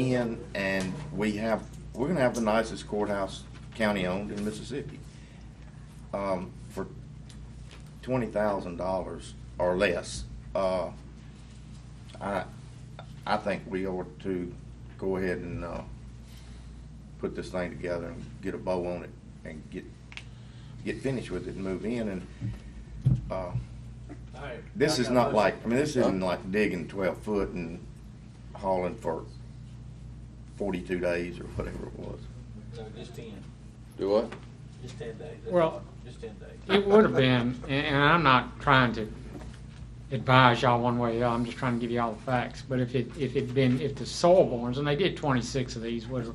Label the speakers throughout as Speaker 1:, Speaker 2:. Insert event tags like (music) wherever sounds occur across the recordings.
Speaker 1: in and we have, we're gonna have the nicest courthouse county-owned in Mississippi. Um, for twenty thousand dollars or less, uh, I, I think we ought to go ahead and, uh, put this thing together and get a bow on it and get, get finished with it and move in and, uh,
Speaker 2: Alright,
Speaker 1: this
Speaker 2: I
Speaker 1: is
Speaker 2: got a
Speaker 1: not
Speaker 2: motion.
Speaker 1: like, I mean, this isn't like digging twelve foot and hauling for forty-two days or whatever it was.
Speaker 2: No, just ten,
Speaker 3: Do what?
Speaker 2: just ten days. That's
Speaker 4: Well-
Speaker 2: all. Just ten days.
Speaker 4: It would have been, and- and I'm not trying to advise y'all one way or the other, I'm just trying to give you all the facts. But if it, if it'd been, if the soilborns, and they did twenty-six of these, would have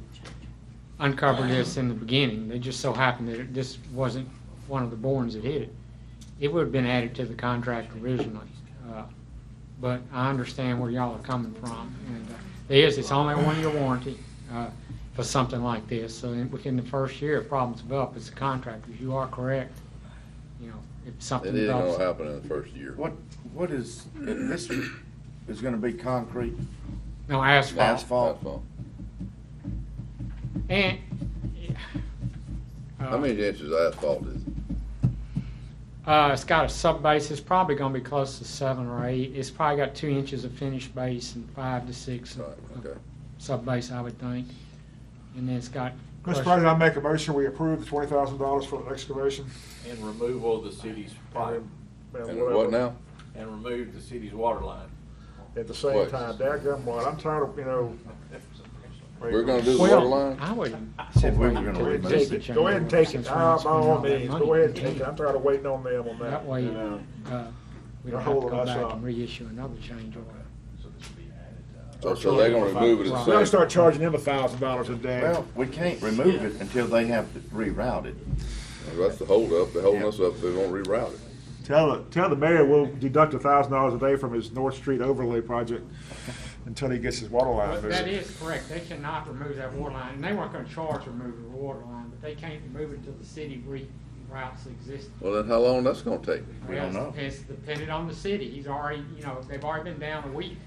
Speaker 4: uncovered this in the beginning. They just so happened that it- this wasn't one of the borns that hit it. It would have been added to the contract originally. Uh, But I understand where y'all are coming from. And uh, there is, it's only a one-year warranty uh, for something like this. So in- within the first year, if problems develop, it's the contractor. You are correct. You know, if something
Speaker 3: It isn't gonna
Speaker 4: develops.
Speaker 3: happen in the first year.
Speaker 1: What, what is, this is gonna be concrete
Speaker 4: No asphalt.
Speaker 1: asphalt?
Speaker 4: And.
Speaker 3: How
Speaker 4: uh,
Speaker 3: many inches of asphalt is it?
Speaker 4: Uh, it's got a sub base. It's probably going to be close to seven or eight. It's probably got two inches of finished base and five to six
Speaker 3: Right, okay.
Speaker 4: sub base, I would think. And then it's got.
Speaker 5: Mr. President, I make a motion, we approve the twenty thousand dollars for the excavation.
Speaker 2: And removal of the city's pipe,
Speaker 3: And what now?
Speaker 2: and remove the city's water line.
Speaker 5: At the same
Speaker 3: What?
Speaker 5: time, dadgum what, I'm tired of, you know.
Speaker 3: We're gonna do the
Speaker 4: Well,
Speaker 3: water line?
Speaker 4: I would.
Speaker 1: Said we were gonna
Speaker 5: Go ahead and
Speaker 1: remove
Speaker 5: take it, go ahead and take it,
Speaker 4: Since we're
Speaker 5: Ah,
Speaker 4: not
Speaker 5: by all
Speaker 4: spending
Speaker 5: means,
Speaker 4: all that
Speaker 5: go
Speaker 4: money.
Speaker 5: ahead and take it, I'm tired of waiting on them on that.
Speaker 4: That way, uh, we don't have to
Speaker 5: Hold on,
Speaker 4: go
Speaker 5: that's
Speaker 4: back
Speaker 5: all.
Speaker 4: and reissue another change order.
Speaker 3: So, so they're gonna remove it
Speaker 5: We're
Speaker 3: at
Speaker 5: gonna
Speaker 3: the same.
Speaker 5: start charging them a thousand dollars a day.
Speaker 1: Well, we can't remove it until they have it rerouted.
Speaker 3: That's the holdup. They're holding us up. They're gonna reroute it.
Speaker 5: Tell, the- tell the mayor we'll deduct a thousand dollars a day from his North Street overlay project until he gets his water line
Speaker 4: That
Speaker 5: moved.
Speaker 4: is correct. They cannot remove that water line. And they weren't going to charge removing the water line, but they can't remove it until the city reroutes existing.
Speaker 3: Well, then how long that's gonna take?
Speaker 1: We don't know.
Speaker 4: It's dependent on the city. He's already, you know, they've already been down a week.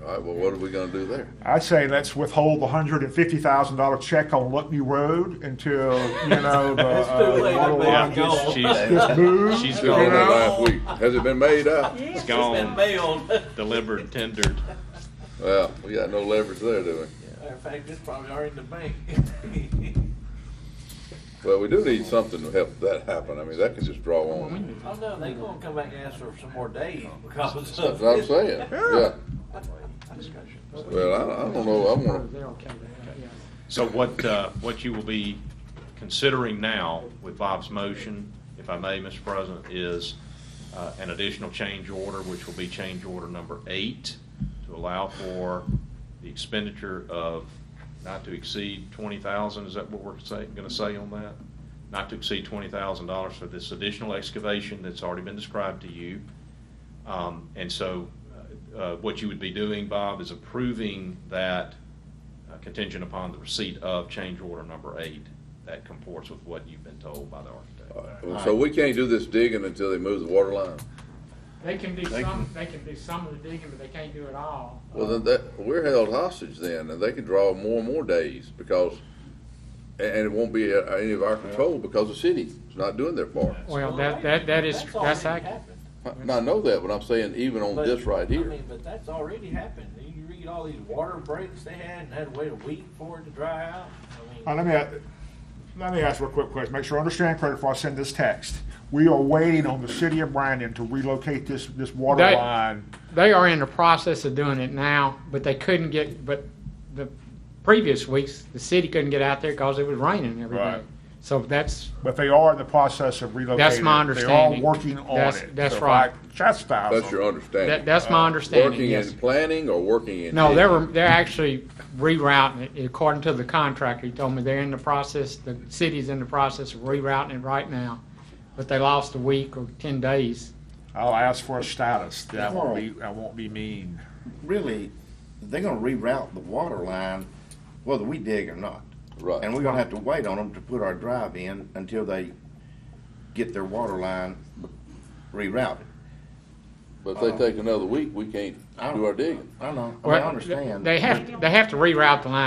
Speaker 3: All right, well, what are we gonna do there?
Speaker 5: I'd say let's withhold the hundred and fifty thousand dollar check on Lutney Road until,
Speaker 2: (laughs)
Speaker 5: you know, the
Speaker 2: It's too
Speaker 5: uh,
Speaker 2: late.
Speaker 5: water line
Speaker 2: It's
Speaker 5: gets
Speaker 2: gone.
Speaker 5: gets moved.
Speaker 6: She's
Speaker 3: It's
Speaker 6: gone
Speaker 3: gone
Speaker 5: You know?
Speaker 3: last week. Has it been made out?
Speaker 6: It's
Speaker 2: It's been
Speaker 6: gone,
Speaker 2: mailed.
Speaker 6: delivered, tendered.
Speaker 3: Well, we got no leverage there, do we?
Speaker 2: Matter of fact, it's probably already (laughs) in the bank.
Speaker 3: Well, we do need something to help that happen. I mean, that can just draw on.
Speaker 2: (laughs) Oh, no, they gonna come back and ask for some more days because of.
Speaker 3: That's what I'm saying. Yeah.
Speaker 2: Discussion.
Speaker 3: Well, I, I don't know. Oh, I wanna,
Speaker 4: They're okay with that, yeah.
Speaker 6: So what, uh, what you will be considering now with Bob's motion, if I may, Mr. President, is uh, an additional change order, which will be change order number eight, to allow for the expenditure of not to exceed twenty thousand, is that what we're say, gonna say on that? Not to exceed twenty thousand dollars for this additional excavation that's already been described to you. Um, And so uh, what you would be doing, Bob, is approving that uh, contingent upon the receipt of change order number eight. That comports with what you've been told by the architect.
Speaker 3: so we can't do this digging until they move the water line?
Speaker 4: They can do
Speaker 1: They
Speaker 4: some, they can do some of the digging, but they can't do it all.
Speaker 3: Well, then that, we're held hostage then, and they can draw more and more days because, and and it won't be uh, any of our control because the city's not doing their part.
Speaker 4: Well, that, that, that is, that's
Speaker 2: already
Speaker 4: accurate.
Speaker 2: happened.
Speaker 3: And I know that, but I'm saying even on
Speaker 2: But,
Speaker 3: this right
Speaker 2: I
Speaker 3: here,
Speaker 2: mean, but that's already happened. You read all these water breaks they had and had to wait a week for it to dry out. I mean.
Speaker 5: All right, Uh, let me, let me ask you a quick question, make sure I understand correctly before I send this text. We are waiting on the city of Brandon to relocate this, this water
Speaker 4: That-
Speaker 5: line.
Speaker 4: They are in the process of doing it now, but they couldn't get, but the previous weeks, the city couldn't get out there because it was raining every day.
Speaker 5: Right.
Speaker 4: So that's,
Speaker 5: But they are in the process of relocating.
Speaker 4: That's my
Speaker 5: it.
Speaker 4: understanding.
Speaker 5: They are working on
Speaker 4: That's-
Speaker 5: it.
Speaker 4: that's
Speaker 5: So if
Speaker 4: right.
Speaker 5: I chastise
Speaker 3: that's your
Speaker 5: them,
Speaker 4: that,
Speaker 3: understanding.
Speaker 4: that's my understanding,
Speaker 3: Working
Speaker 4: yes.
Speaker 3: in planning or working in?
Speaker 4: No, they're, they're actually rerouting it, according to the contractor, he told me they're in the process, the city's in the process of rerouting it right now. But they lost a week or ten days.
Speaker 5: I'll ask for a status, that won't be, I won't be mean.
Speaker 1: Really, they're gonna reroute the water line whether we dig or not.
Speaker 3: Right.
Speaker 1: And we're gonna have to wait on them to put our drive in until they get their water line rerouted.
Speaker 3: But if they take another week, we can't do our digging.
Speaker 1: Oh, I know, I mean, I
Speaker 4: Well,
Speaker 1: understand.
Speaker 4: They have, to- they have to reroute the line